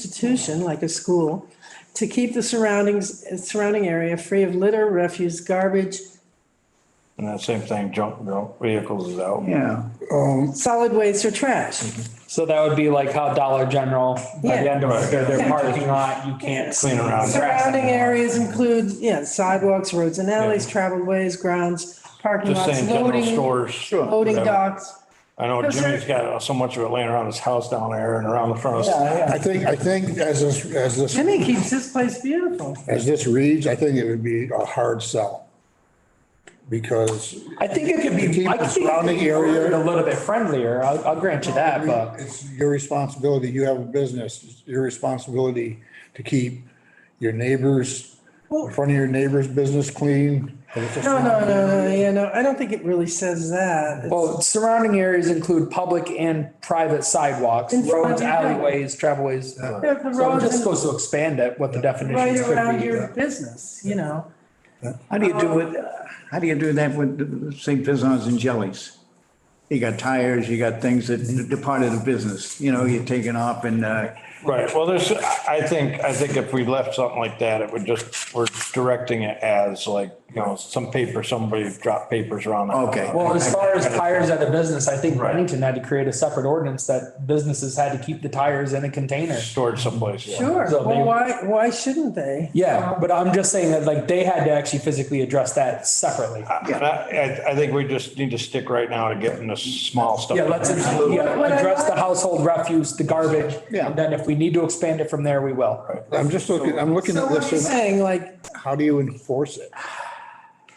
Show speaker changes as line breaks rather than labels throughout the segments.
institution like a school to keep the surroundings, surrounding area free of litter, refuse, garbage,
And that same thing, junk, junk vehicles is out.
Yeah,
solid waste or trash.
So that would be like how Dollar General, by the
Yeah.
end of their, their
Yeah.
parking lot, you can't
Clean around.
Surrounding areas include, yeah, sidewalks, roads and alleys, traveled ways, grounds, parking
Just
lots,
saying, general
loading,
stores.
loading
whatever.
docks.
I know Jimmy's got so much of it laying around his house down there and around the front. of-
I think, I think as this, as this,
Jimmy keeps his place beautiful.
as this reads, I think it would be a hard sell. Because
I think it could be,
Keep
I
the
think it could
surrounding
be
area-
worded a little bit friendlier. I'll, I'll grant you that, but
it's your responsibility, you have a business, it's your responsibility to keep your neighbors, in front of your neighbor's business clean.
No, no, no, no, yeah, no, I don't think it really says that.
well, surrounding areas include public and private sidewalks,
In front
roads,
of your-
alleyways, travelways. uh,
Yeah, the
So it
roads
just
and
goes to expand it, what the
right
definitions could
around
be.
your business, you know.
how do you do it, how do you do that with St. Pizzon's and Jellies? You got tires, you got things that departed the business, you know, you're taking off and, uh,
Right, well, there's, I think, I think if we left something like that, it would just, we're directing it as like, you know, some paper, somebody dropped papers around. the-
Okay.
Well, as far as tires at a business, I think Bennington had to create a separate ordinance that businesses had to keep the tires in a container.
Stored someplace. yeah.
Sure,
So they-
well, why, why shouldn't they?
Yeah, but I'm just saying that like they had to actually physically address that separately.
And I, I- I think we just need to stick right now to getting the small stuff.
Yeah, let's
What I-
yeah, address the household refuse, the garbage.
Yeah.
And then if we need to expand it from there, we will.
I'm just looking, I'm looking
So
at
what are
this,
you
and
saying, like,
how do you enforce it?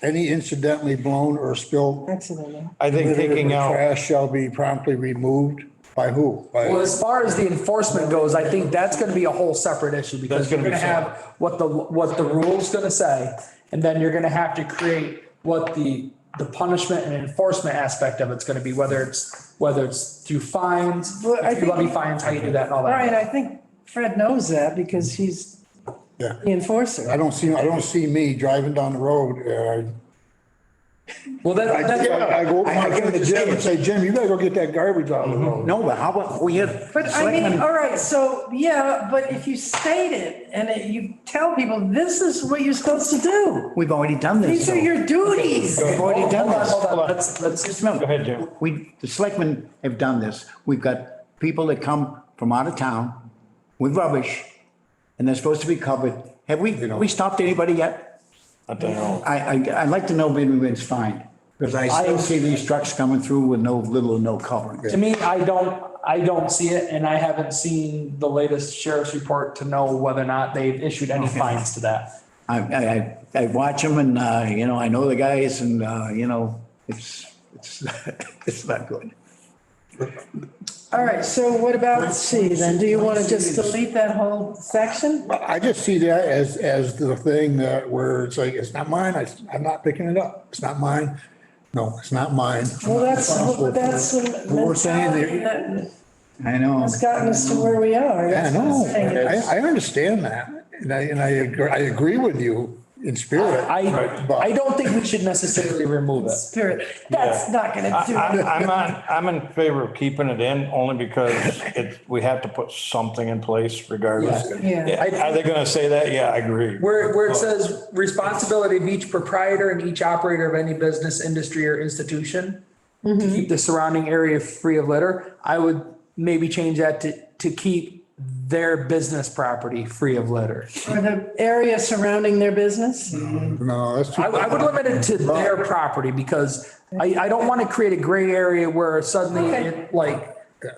Any incidentally blown or spilled
accidentally?
I think
litter
taking
or
out,
trash shall be promptly removed by who?
Well,
By,
as far as the enforcement goes, I think that's gonna be a whole separate issue because
That's
you're
gonna
gonna
be
have what the, what the rule's gonna say. And then you're gonna have to create what the, the punishment and enforcement aspect of it's gonna be, whether it's, whether it's through fines,
Well, I
if you
think-
levy fines, how you do that and all that.
Brian, I think Fred knows that because he's
yeah.
the enforcer.
I don't see, I don't see me driving down the road, uh,
Well, that,
I,
that's.
I go,
I- I
I
give
go
him
to
the
Jim
Jim.
and say, Jim, you better go get that garbage out of the road.
no, but how about, we had.
But I mean, all right, so, yeah, but if you state it and it- you tell people, this is what you're supposed to do.
We've already done this.
These are
though.
your Oh, duties.
We've already done this.
Hold on, hold on. Let's, let's
Just
oh.
remember.
Go ahead, Jim.
We, the selectmen have done this. We've got people that come from out of town with rubbish and they're supposed to be covered. Have we, we stopped anybody yet?
I don't know.
I, I, I'd like to know maybe when it's fined. Because I still see these trucks coming through with no, little or no covering.
To me, I don't, I don't see it, and I haven't seen the latest sheriff's report to know whether or not they've issued any fines to that.
I, I, I- I watch them and, uh, you know, I know the guys and, uh, you know, it's, it's, it's not good.
All right, so what about C then? Do you want to just delete that whole section?
I just see that as, as the thing that where it's like, it's not mine, I, I'm not picking it up, it's not mine. No, it's not mine. I'm
Well,
not
that's,
responsible for
that's
it.
the
But we're saying
mentality
there,
that
I know.
has gotten us to where we are.
I
That's what I'm
know,
saying.
I, I understand that, and I, and I, agree- I agree with you in spirit.
I,
but-
I don't think we should necessarily remove it.
Spirit, that's not going to
I,
do
I-
it.
I'm on, I'm in favor of keeping it in only because it, we have to put something in place regardless.
Yeah. Yeah.
Are they gonna say that? Yeah, I agree.
Where, where it says responsibility of each proprietor and each operator of any business, industry or institution to keep the surrounding area free of litter, I would maybe change that to, to keep their business property free of litter.
Or the area surrounding their business?
No, that's too.
I, I would limit it to their property because I, I don't want to create a gray area where suddenly
Okay.
it like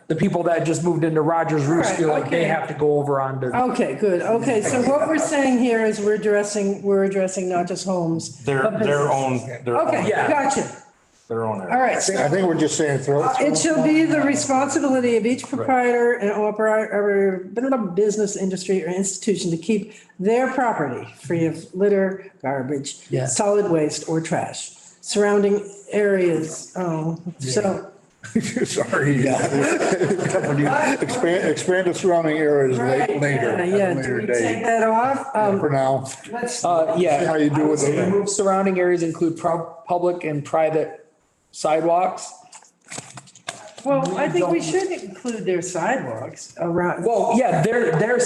the people that just moved into Rogers Roost
Alright,
feel like they
okay.
have to go over onto.
Okay, good. Okay, so what we're saying here is we're addressing, we're addressing not just homes.
Their,
but
their
businesses.
own, their
Okay,
own,
Yeah.
gotcha.
their own. area.
All right.
I think we're just saying throw.
It shall be the responsibility of each proprietor and operator, blah, blah, blah, business, industry, or institution to keep their property free of litter, garbage,
Yeah.
solid waste, or trash. Surrounding areas, oh, so,
Sorry. Expand, expand the surrounding areas la-
right,
later.
yeah,
at a
yeah, do
later
we
date.
take that off?
For
Um,
now,
let's-
Uh, yeah.
See how you do
I would
with
say
it.
remove Surrounding areas include prob- public and private sidewalks.
Well, I think we should include their sidewalks around.
Well, yeah, their, their